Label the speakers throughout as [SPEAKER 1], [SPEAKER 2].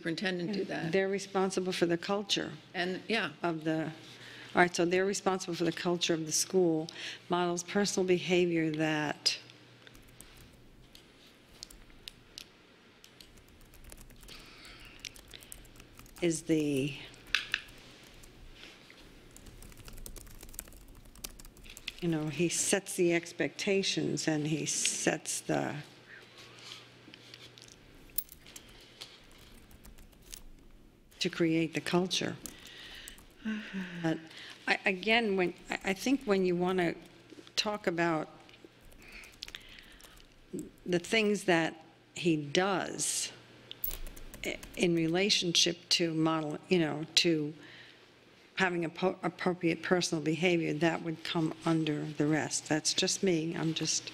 [SPEAKER 1] superintendent do that.
[SPEAKER 2] They're responsible for the culture
[SPEAKER 1] And, yeah,
[SPEAKER 2] of the, all right, so they're responsible for the culture of the school, models personal behavior that, is the, you know, he sets the expectations and he sets the, to create the culture. But I, again, when, I, I think when you want to talk about the things that he does i- in relationship to model, you know, to having appo- appropriate personal behavior, that would come under the rest. That's just me. I'm just.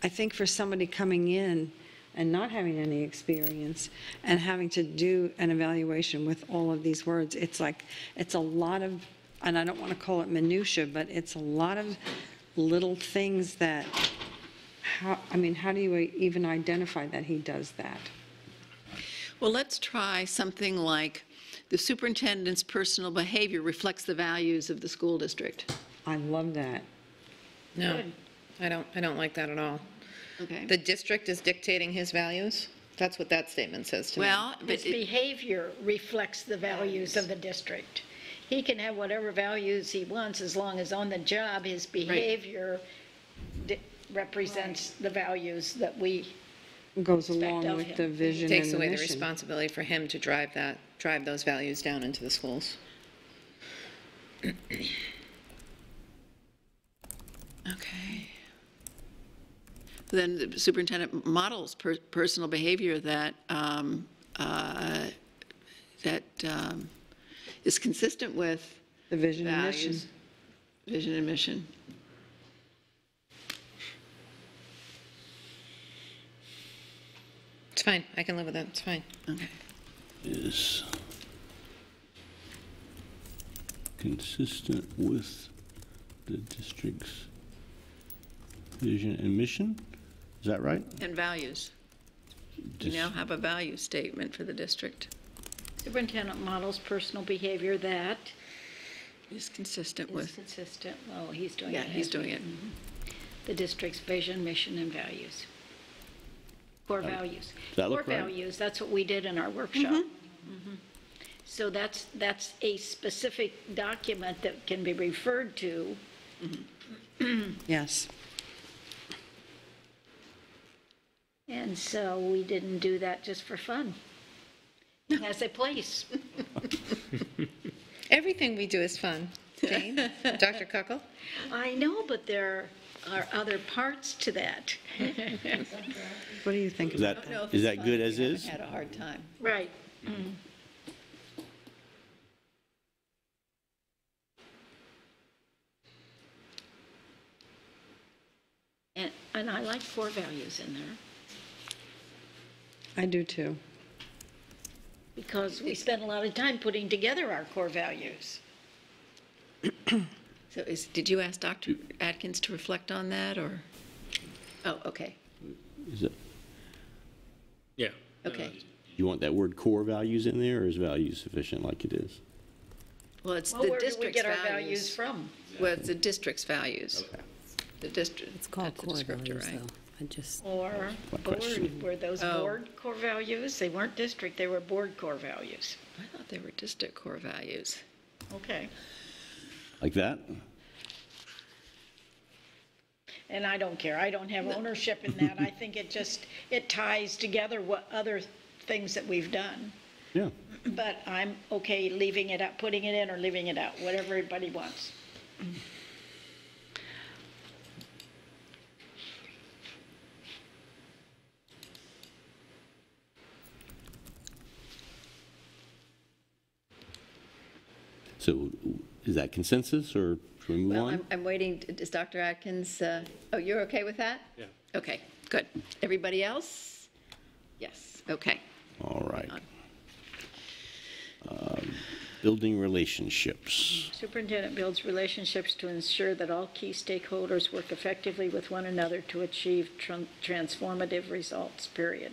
[SPEAKER 2] I think for somebody coming in and not having any experience and having to do an evaluation with all of these words, it's like, it's a lot of, and I don't want to call it minutia, but it's a lot of little things that, how, I mean, how do you even identify that he does that?
[SPEAKER 1] well, let's try something like, the superintendent's personal behavior reflects the values of the school district.
[SPEAKER 2] I love that.
[SPEAKER 3] No, I don't, I don't like that at all. The
[SPEAKER 1] Okay?
[SPEAKER 3] district is dictating his values? That's what that statement says to me.
[SPEAKER 1] Well, but
[SPEAKER 4] His
[SPEAKER 1] it-
[SPEAKER 4] behavior reflects the values of the district. He can have whatever values he wants as long as on the job, his behavior di- represents the values that we,
[SPEAKER 2] Goes
[SPEAKER 4] Respect
[SPEAKER 2] along
[SPEAKER 4] of
[SPEAKER 2] with
[SPEAKER 4] him.
[SPEAKER 2] the vision and
[SPEAKER 3] Takes
[SPEAKER 2] the
[SPEAKER 3] away the
[SPEAKER 2] mission.
[SPEAKER 3] responsibility for him to drive that, drive those values down into the schools.
[SPEAKER 1] okay. Then the superintendent models per- personal behavior that, um, uh, that um, is consistent with
[SPEAKER 2] The vision and mission.
[SPEAKER 1] values, vision and mission.
[SPEAKER 3] It's fine, I can live with that, it's fine.
[SPEAKER 1] Okay.
[SPEAKER 5] is consistent with the district's vision and mission? Is that right?
[SPEAKER 1] And values. You now have a value statement for the district.
[SPEAKER 4] superintendent models personal behavior that
[SPEAKER 1] Is consistent
[SPEAKER 4] is
[SPEAKER 1] with,
[SPEAKER 4] consistent, oh, he's doing
[SPEAKER 1] yeah,
[SPEAKER 4] it.
[SPEAKER 1] he's doing it.
[SPEAKER 4] The district's vision, mission, and values. Core values.
[SPEAKER 5] that look
[SPEAKER 4] Core
[SPEAKER 5] right?
[SPEAKER 4] values, that's what we did in our workshop. Mhm. So that's, that's a specific document that can be referred to
[SPEAKER 2] Yes.
[SPEAKER 4] And so we didn't do that just for fun. It has a place.
[SPEAKER 3] Everything we do is fun. Jane? Dr. Cuckle?
[SPEAKER 4] I know, but there are other parts to that.
[SPEAKER 2] What do you think?
[SPEAKER 5] Is that, is that good as is?
[SPEAKER 1] Had a hard time.
[SPEAKER 4] Right. Mm. And, and I like core values in there
[SPEAKER 2] I do too.
[SPEAKER 4] because we spent a lot of time putting together our core values.
[SPEAKER 1] So is, did you ask Dr. Atkins to reflect on that, or? Oh, okay,
[SPEAKER 5] Is it,
[SPEAKER 6] Yeah.
[SPEAKER 1] okay.
[SPEAKER 5] you want that word core values in there, or is value sufficient like it is?
[SPEAKER 1] Well, it's
[SPEAKER 4] Well,
[SPEAKER 1] the
[SPEAKER 4] where do we
[SPEAKER 1] district's
[SPEAKER 4] get our values
[SPEAKER 1] values.
[SPEAKER 4] from?
[SPEAKER 1] Well, it's the district's vavalues. The district,
[SPEAKER 7] It's called
[SPEAKER 1] that's the
[SPEAKER 7] core
[SPEAKER 1] descriptor,
[SPEAKER 7] values,
[SPEAKER 1] right?
[SPEAKER 7] though. I just,
[SPEAKER 4] Or
[SPEAKER 5] my question.
[SPEAKER 4] board, were those
[SPEAKER 1] Oh.
[SPEAKER 4] board core values? They weren't district, they were board core values.
[SPEAKER 1] I thought they were district core values.
[SPEAKER 4] Okay.
[SPEAKER 5] Like that?
[SPEAKER 4] And I don't care, I don't have ownership in that. I think it just, it ties together what other things that we've done.
[SPEAKER 5] Yeah.
[SPEAKER 4] But I'm okay leaving it out, putting it in or leaving it out, whatever everybody wants.
[SPEAKER 5] So is that consensus, or should we move
[SPEAKER 1] Well,
[SPEAKER 5] on?
[SPEAKER 1] I'm, I'm waiting, is Dr. Atkins, uh, oh, you're okay with that?
[SPEAKER 6] Yeah.
[SPEAKER 1] Okay, good. Everybody else? Yes, okay.
[SPEAKER 5] All right. Um, Building relationships.
[SPEAKER 4] Superintendent builds relationships to ensure that all key stakeholders work effectively with one another to achieve tran- transformative results, period.